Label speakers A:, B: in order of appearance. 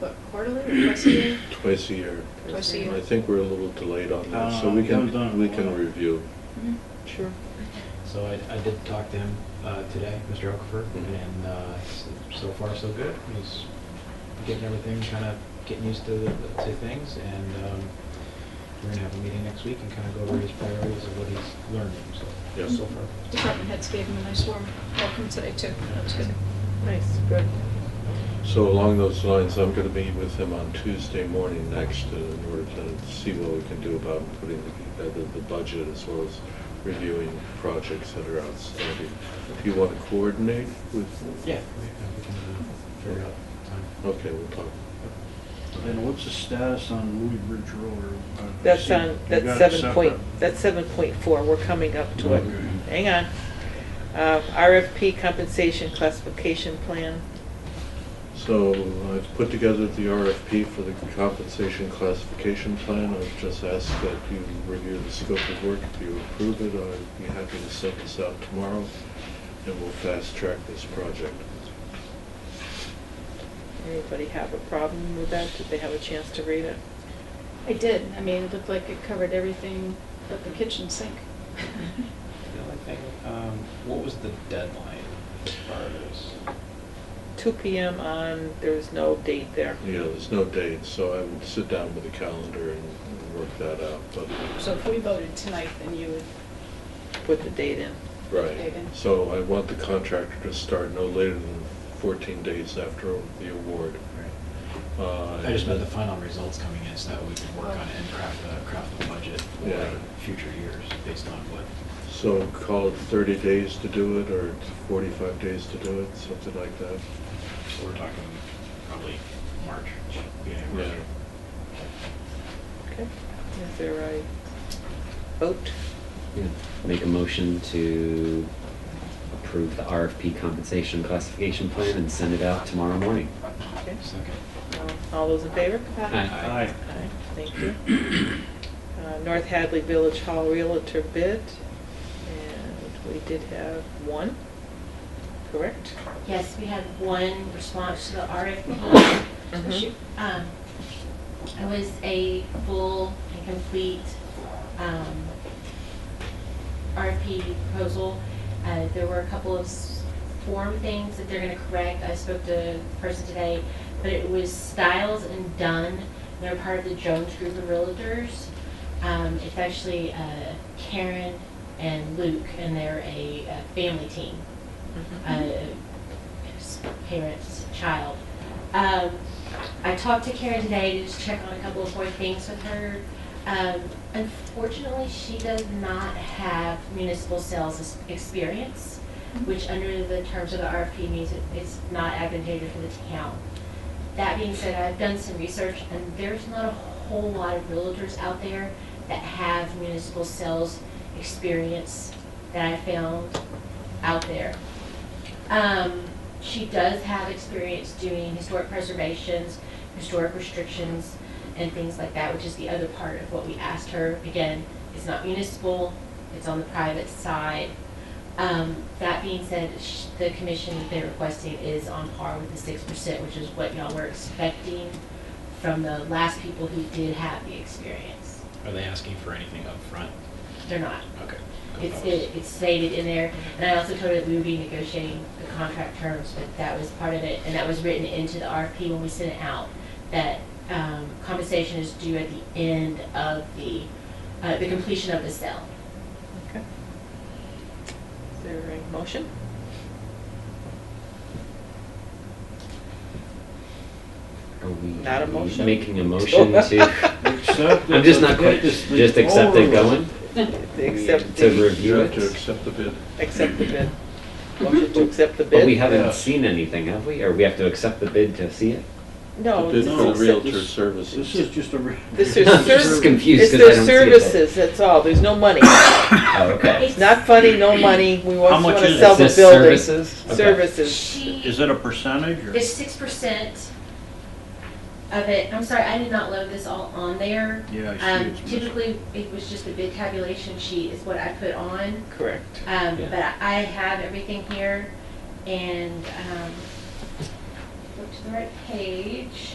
A: what, quarterly or twice a year?
B: twice a year.
A: Twice a
B: And
A: year.
B: I think we're a little delayed on that, so
C: Uh,
B: we
C: that was done
B: can,
C: in
B: we
C: one
B: can
C: hour.
B: review.
A: Mhm.
B: Sure.
D: So I, I did talk to him uh, today, Mr. Okafor, and uh, s- so far so good. He's getting everything, kind of getting used to, the- to things, and um, we're gonna have a meeting next week and kind of go over his priorities and what he's learning, so.
B: Yeah.
D: So far.
A: Department heads gave him a nice warm welcome today too. That was good.
E: Nice, good.
B: So along those lines, I'm gonna be with him on Tuesday morning next uh, in order to see what we can do about putting together the budget as well as reviewing projects that are outstanding. If you wanna coordinate with?
D: Yeah, we we can uh, figure out time.
B: Okay, we'll talk.
C: And what's the status on Louis Bridge Road? or-
E: That's on,
C: You
E: that's
C: got it
E: seven point,
C: separate?
E: that's seven point four, we're coming up to it.
C: Okay.
E: Hang on. Uh, RFP compensation classification plan.
B: So I've put together the RFP for the compensation classification plan. I've just asked that you review the scope of work. If you approve it, I'd be happy to send this out tomorrow, and we'll fast-track this project.
E: Anybody have a problem with that? Did they have a chance to read it?
A: I did. I mean, it looked like it covered everything but the kitchen sink.
D: The only thing, um, what was the deadline as far as?
E: Two PM on, there's no date there.
B: You know, there's no date, so I would sit down with the calendar and and work that out, but,
F: So if we voted tonight, then you would,
E: Put the date in.
B: right.
F: David?
B: So I want the contractor to start no later than 14 days after the award. Uh,
D: I just meant
B: and
D: the final results coming in, so that we can work on it and craft the, craft the budget
B: Yeah.
D: for future years based on what.
B: So call it 30 days to do it, or 45 days to do it, something like that.
D: So we're talking probably March, beginning of
B: Yeah.
D: March.
E: Okay. Is there a vote?
G: Yeah. Make a motion to approve the RFP compensation classification plan and send it out tomorrow morning.
E: Okay.
D: Second.
E: Um, All those in favor?
A: Aye.
C: Aye.
E: Aye, thank you. Uh, North Hadley Village Hall Realtor bid, and we did have one, correct?
H: Yes, we had one response to the RFP. So
E: Mhm.
H: she- um, It was a full and complete um, RFP proposal. Uh, There were a couple of s- form things that they're going to correct. I spoke to the person today, but it was Styles and Dunn. They're part of the Jones Group of Realtors. Um, It's actually uh, Karen and Luke, and they're a a family team uh, his parents, child. Um, I talked to Karen today to just check on a couple of more things with her. Um, unfortunately, she does not have municipal sales ex- experience, which under the terms of the RFP means it- it's not advantageous for the town. That being said, I've done some research and there's not a whole lot of realtors out there that have municipal sales experience that I found out there. Um, she does have experience doing historic preservations, historic restrictions, and things like that, which is the other part of what we asked her. Again, it's not municipal, it's on the private side. Um, that being said, sh- the commission that they're requesting is on par with the six percent, which is what y'all were expecting from the last people who did have the experience.
D: Are they asking for anything up front?
H: They're not.
D: Okay.
H: It's, it- it's stated in there, and I also told her that we would be negotiating the contract terms, but that was part of it, and that was written into the RFP when we sent it out, that um, compensation is due at the end of the, uh, the completion of the sale.
E: Okay. Is there a motion?
G: Are we
E: Not a motion.
G: making a motion to?
C: Accept
G: I'm just
C: it,
G: not quite,
C: get this thing
G: just accept it
C: over
G: going?
E: Accept
G: To
E: the,
B: You
G: review
B: have to
G: it?
B: accept the bid.
E: accept the bid. Motion to accept the bid?
G: But we
C: Yeah.
G: haven't seen anything, have we? Or we have to accept the bid to see it?
E: No.
B: The bid
E: this is
B: for
C: no,
B: the
E: accept-
B: realtor
C: this- with. This
B: services.
C: is just a. re-
E: This is
G: I'm
E: service-
G: just confused
E: It's
G: because
E: their
G: I don't see it. there.
E: services, that's all, there's no money.
G: Oh, okay.
E: It's not funny, no money, we
C: How
E: want
C: much
E: to
C: is it?
E: sell
G: Is
E: the
G: this
E: building.
G: services? Okay.
E: Services.
H: She,
C: Is it a percentage or?
H: it's six percent of it, I'm sorry, I did not load this all on there.
C: Yeah, I see.
H: Um,
C: it's missing.
H: Typically, it was just the bid tabulation sheet is what I put on.
E: Correct.
H: Um,
G: Yeah.
H: but I I have everything here and, um, go to the right page.